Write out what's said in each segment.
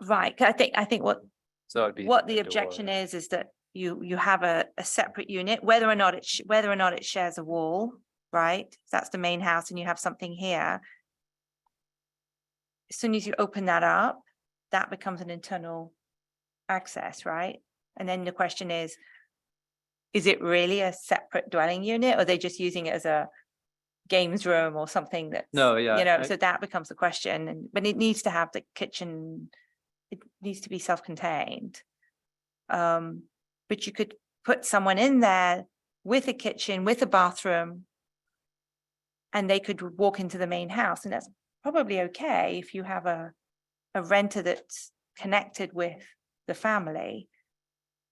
Right, 'cause I think, I think what, So it'd be. what the objection is, is that you, you have a, a separate unit, whether or not it, sh- whether or not it shares a wall, right? That's the main house and you have something here. As soon as you open that up, that becomes an internal access, right? And then the question is, is it really a separate dwelling unit? Or are they just using it as a games room or something that? No, yeah, You know, I- so that becomes the question and, but it needs to have the kitchen, it needs to be self-contained. Um, but you could put someone in there with a kitchen, with a bathroom. And they could walk into the main house and that's probably okay if you have a, a renter that's connected with the family.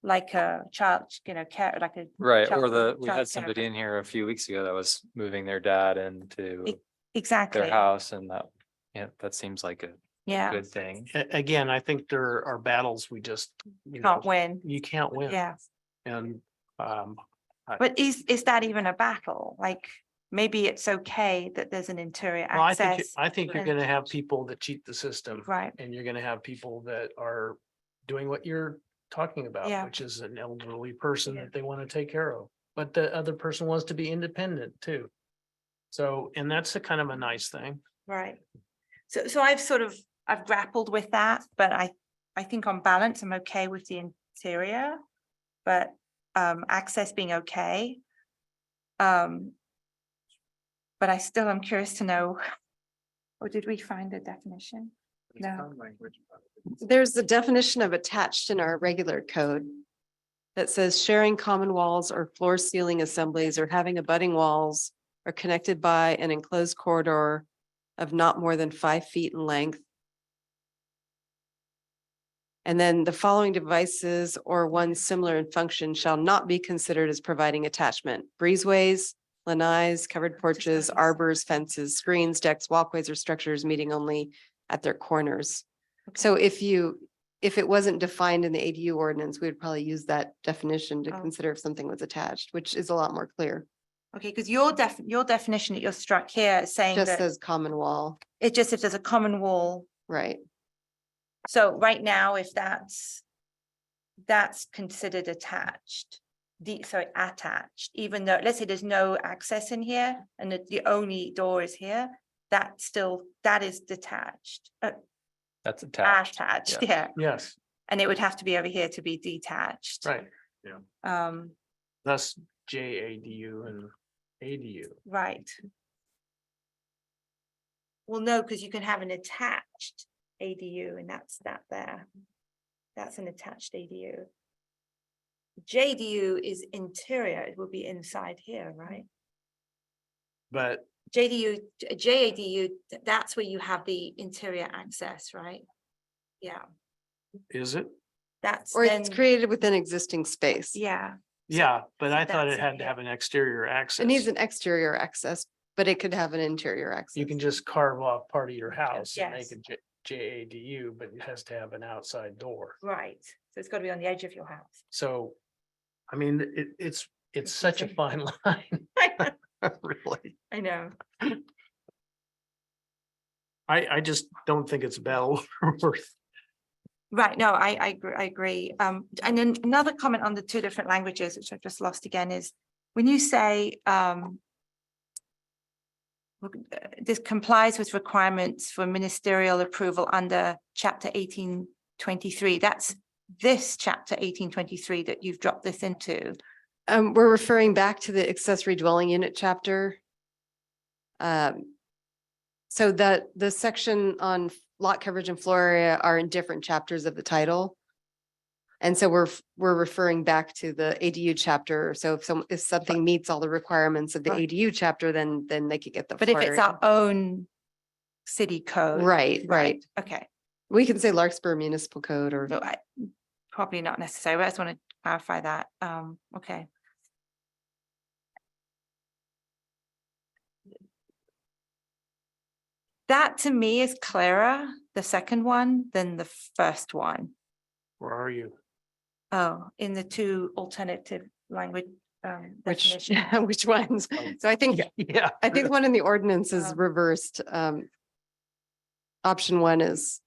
Like a child, you know, care, like a, Right, or child- the, we child had care somebody for- in here a few weeks ago that was moving their dad into exactly, their house and that, yeah, that seems like a yeah, good thing. A- again, I think there are battles we just, you know, can't win, you can't win. yeah. And um, But is, is that even a battle? Like, maybe it's okay that there's an interior well, I think, you- access, I think you're and- gonna have people that cheat the system. right? And you're gonna have people that are doing what you're talking Yeah. about, which is an elderly person Yeah. that they want to take care of. But the other person wants to be independent too. So, and that's a kind of a nice thing. Right. So, so I've sort of, I've grappled with that, but I, I think on balance, I'm okay with the interior. But, um, access being okay. Um. But I still am curious to know, or did we find a definition? No. There's the definition of attached in our regular code that says sharing common walls or floor ceiling assemblies or having abutting walls are connected by an enclosed corridor of not more than five feet in length. And then the following devices or one similar in function shall not be considered as providing attachment. Breezeways, lanais, covered porches, arbors, fences, screens, decks, walkways, or structures meeting only at their corners. So if you, if it wasn't defined in the ADU ordinance, we would probably use that definition to Oh. consider if something was attached, which is a lot more clear. Okay, because your def, your definition that you're struck here is saying Just that says common wall, it just if there's a common wall right? So right now, if that's, that's considered attached, the, sorry, attached, even though, let's say there's no access in here and the, the only door is here, that still, that is detached, uh, That's attached. attached, yeah. yeah. Yes, And it would have to be over here to be detached. right. Um, Thus J A D U and A D U. right. Well, no, because you can have an attached ADU and that's that there. That's an attached ADU. JDU is interior, it will be inside here, right? But JDU, J- JADU, th- that's where you have the interior access, right? Yeah, is it? that's Or it's then- created within existing space. Yeah, Yeah, but I thought that's it had okay. to have an exterior access. It needs an exterior access, but it could have an interior access. You can just carve off part of your house and Yes. make it J A D U, but it has to have an outside door. right. So it's got to be on the edge of your house. So, I mean, it, it's, it's It's such a okay. fine line, really. I know. I, I just don't think it's a battle worth. Right, no, I, I, gr- I agree. Um, and then another comment on the two different languages, which I've just lost again, is when you say, um, look, uh, this complies with requirements for ministerial approval under chapter eighteen twenty-three, that's this chapter eighteen twenty-three that you've dropped this into. Um, we're referring back to the accessory dwelling unit chapter. Um, so that the section on lot coverage and floor area are in different chapters of the title. And so we're, f- we're referring back to the ADU chapter. So if some, if something meets all the requirements of the Right. ADU chapter, then, then they could get the. But if floor it's area. our own city code. Right, right. Okay, We can say Larkspur Municipal Code or no, I, probably not necessary, but I just want to clarify that. Um, okay. That to me is clearer, the second one, than the first one. Where are you? Oh, in the two alternative language um which, definitions. which ones. Oh. So I think Yeah. I think one in the ordinance is Um, reversed. um, Option one is